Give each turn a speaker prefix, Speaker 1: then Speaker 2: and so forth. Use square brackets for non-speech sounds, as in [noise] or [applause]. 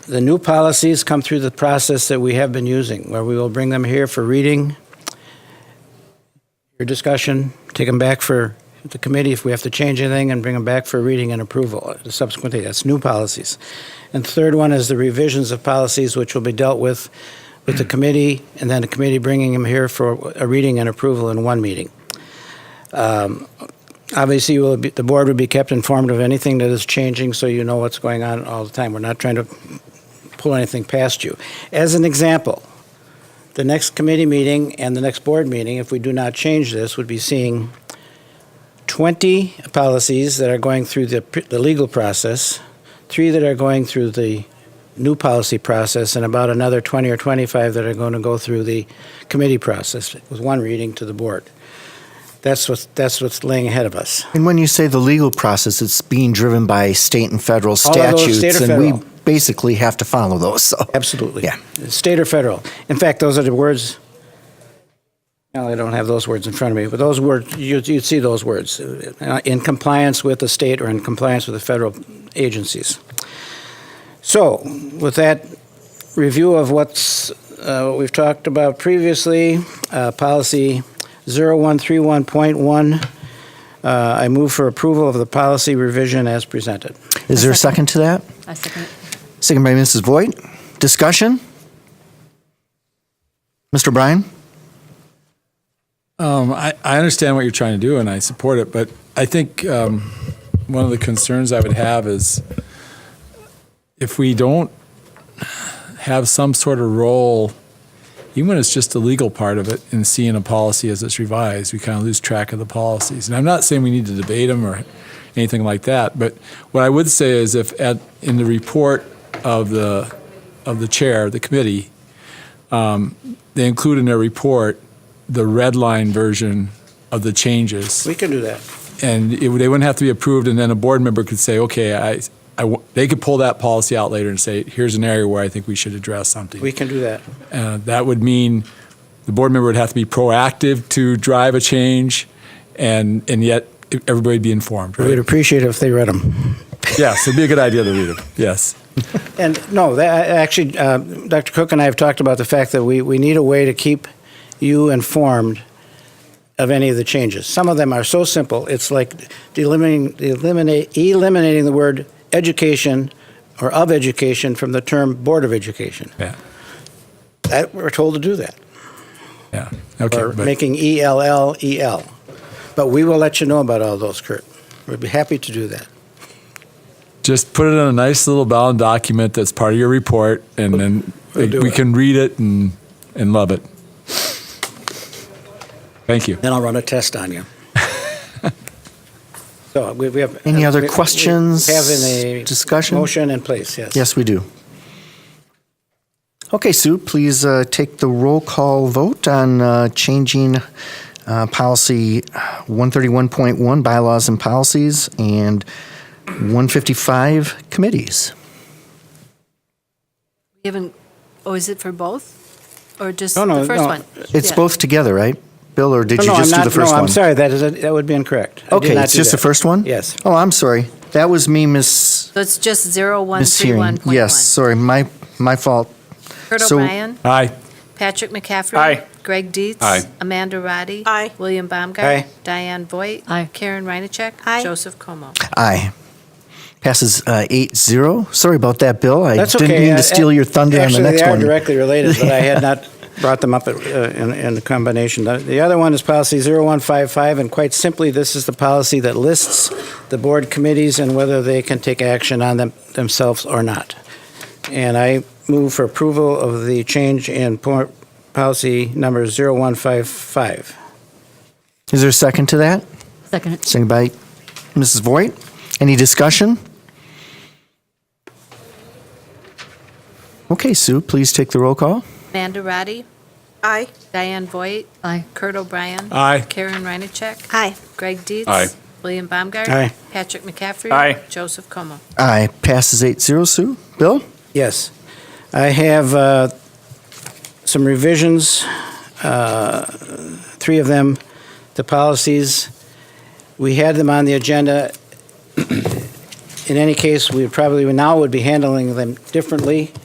Speaker 1: The new policies come through the process that we have been using, where we will bring them here for reading, your discussion, take them back for the committee if we have to change anything, and bring them back for reading and approval subsequently. That's new policies. And third one is the revisions of policies, which will be dealt with with the committee, and then the committee bringing them here for a reading and approval in one meeting. Um, Obviously, you will be- the board would be kept informed of anything that is changing, so you know what's going on all the time. We're not trying to pull anything past you. As an example, the next committee meeting and the next board meeting, if we do not change this, would be seeing 20 policies that are going through the pr- the legal process, three that are going through the new policy process, and about another 20 or 25 that are going to go through the committee process with one reading to the board. That's what's, that's what's laying ahead of us.
Speaker 2: And when you say the legal process, it's being driven by state and federal
Speaker 1: All of those
Speaker 2: statutes,
Speaker 1: state or
Speaker 2: and
Speaker 1: federal.
Speaker 2: we basically have to follow those. So,
Speaker 1: Absolutely.
Speaker 2: Yeah.
Speaker 1: State or federal. In fact, those are the words, no, I don't have those words in front of me, but those words, you'd, you'd see those words, uh, in compliance with the state or in compliance with the federal agencies. So, with that review of what's, uh, what we've talked about previously, uh, policy 0131.1, uh, I move for approval of the policy revision as presented.
Speaker 2: is there a second to that?
Speaker 3: I second it.
Speaker 2: Second by Mrs. Voigt. Discussion? Mr. Bryan?
Speaker 4: Um, I, I understand what you're trying to do and I support it, but I think um, one of the concerns I would have is if we don't have some sort of role, even when it's just the legal part of it, in seeing a policy as it's revised, we kind of lose track of the policies. And I'm not saying we need to debate them or anything like that, but what I would say is if at, in the report of the, of the chair, the committee, um, they include in their report the red line version of the changes.
Speaker 1: We can do that.
Speaker 4: And it, they wouldn't have to be approved, and then a board member could say, okay, I, I w- they could pull that policy out later and say, here's an area where I think we should address something.
Speaker 1: We can do that.
Speaker 4: Uh, That would mean the board member would have to be proactive to drive a change, and, and yet everybody would be informed,
Speaker 1: We'd
Speaker 4: right?
Speaker 1: appreciate it if they read them.
Speaker 4: Yes, it'd be a good idea to read them, yes.
Speaker 1: And no, that, actually, uh, Dr. Cook and I have talked about the fact that we, we need a way to keep you informed of any of the changes. Some of them are so simple, it's like eliminating, eliminate, eliminating the word education or of education from the term Board of Education.
Speaker 4: Yeah,
Speaker 1: That, we're told to do that,
Speaker 4: yeah, okay.
Speaker 1: or
Speaker 4: but-
Speaker 1: making E ELL EL. But we will let you know about all those, Kurt. We'd be happy to do that.
Speaker 4: just put it in a nice little bound document that's part of your report, and then
Speaker 1: We'll do
Speaker 4: we
Speaker 1: it.
Speaker 4: can read it and, and love it. Thank you.
Speaker 1: Then I'll run a test on
Speaker 2: [laughs]
Speaker 1: you. So we we have. uh,
Speaker 2: Any other
Speaker 1: we- we
Speaker 2: questions,
Speaker 1: Have a.
Speaker 2: discussion?
Speaker 1: Motion in place, yes.
Speaker 2: Yes, we do. Okay, Sue, please uh, take the roll call vote on uh, changing uh, policy 131.1, bylaws and policies, and 155, committees.
Speaker 3: We haven't, oh, is it for both? Or just
Speaker 1: No, no,
Speaker 3: the first
Speaker 1: no.
Speaker 3: one?
Speaker 2: It's
Speaker 3: Yeah.
Speaker 2: both together, right? Bill, or did
Speaker 1: No,
Speaker 2: you
Speaker 1: Oh, no, I'm
Speaker 2: just do
Speaker 1: not,
Speaker 2: the
Speaker 1: no,
Speaker 2: first one?
Speaker 1: I'm sorry, that is, that would be incorrect. I did
Speaker 2: Okay,
Speaker 1: not
Speaker 2: it's
Speaker 1: do
Speaker 2: just the
Speaker 1: that.
Speaker 2: first one?
Speaker 1: Yes.
Speaker 2: Oh, I'm sorry. That was me miss
Speaker 3: So it's just zero one three one
Speaker 2: mishearing.
Speaker 3: point one.
Speaker 2: Yes, sorry, my my fault.
Speaker 3: Kurt
Speaker 2: so-
Speaker 3: O'Brien,
Speaker 4: Aye.
Speaker 3: Patrick McCaffrey. Greg Dietz.
Speaker 4: Aye.
Speaker 3: Amanda Roddy.
Speaker 5: Aye.
Speaker 3: William Baumgart.
Speaker 1: Aye.
Speaker 3: Diane Voigt.
Speaker 6: Aye.
Speaker 3: Karen Reinacek.
Speaker 5: Aye.
Speaker 3: Joseph Como.
Speaker 2: Aye. Passes uh, 8-0. Sorry about that, Bill. I
Speaker 1: That's
Speaker 2: didn't
Speaker 1: okay,
Speaker 2: mean
Speaker 1: uh,
Speaker 2: to steal your thunder on the
Speaker 1: Actually,
Speaker 2: next
Speaker 1: they are
Speaker 2: one.
Speaker 1: directly related, but I had
Speaker 2: [laughs]
Speaker 1: not brought them up uh, in, in the combination. The- The other one is policy 0155, and quite simply, this is the policy that lists the board committees and whether they can take action on them themselves or not. And I move for approval of the change in po- policy number 0155.
Speaker 2: Is there a second to that?
Speaker 6: Second it.
Speaker 2: Second by Mrs. Voigt. Any discussion? Okay, Sue, please take the roll call.
Speaker 3: Amanda Roddy.
Speaker 5: Aye.
Speaker 3: Diane Voigt.
Speaker 6: Aye.
Speaker 3: Kurt O'Brien.
Speaker 4: Aye.
Speaker 3: Karen Reinacek.
Speaker 5: Aye.
Speaker 3: Greg Dietz.
Speaker 4: Aye.
Speaker 3: William Baumgart.
Speaker 1: Aye.
Speaker 3: Patrick McCaffrey.
Speaker 4: Aye.
Speaker 3: Joseph Como.
Speaker 2: Aye. Passes 8-0, Sue. Bill?
Speaker 1: Yes. I have uh, some revisions, uh, three of them, [clears throat] the policies. We had them on the agenda in any case, we probably now would be handling them differently.